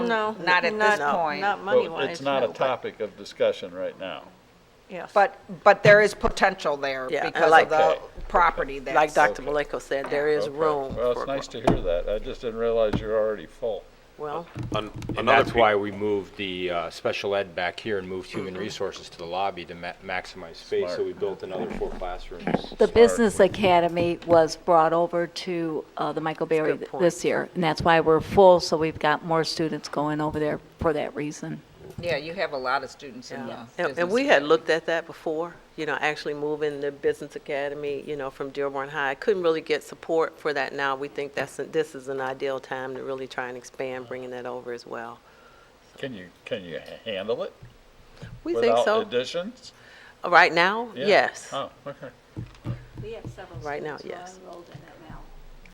No. Not at this not- point. Not Well, money-wise. It's not a no, but- topic of discussion right now. Yes. But, but there is potential there Yeah, and because like- of the Okay. property that's. Like Dr. Okay. Malenko said, there is Okay. room Well, for it's nice to hear that. I just didn't realize you're already full. Well, An- And another that's pe- why we moved the uh, special ed back here and moved human resources to the lobby to ma- maximize space. So Smart. we built another four classrooms. The Business Academy was brought over to uh, the Michael Berry good th- point. this year, and that's why we're full, so we've got more students going over there for that reason. Yeah, you have a lot of students in the and, and business we had community. looked at that before, you know, actually moving the business academy, you know, from Dearborn High. Couldn't really get support for that now. We think that's, this is an ideal time to really try and expand, bringing that over as well. Can you, can you h- handle it? We think Without so. additions? Right now, Yeah. yes. Oh, okay. We have several Right now, students who are yes. enrolled in it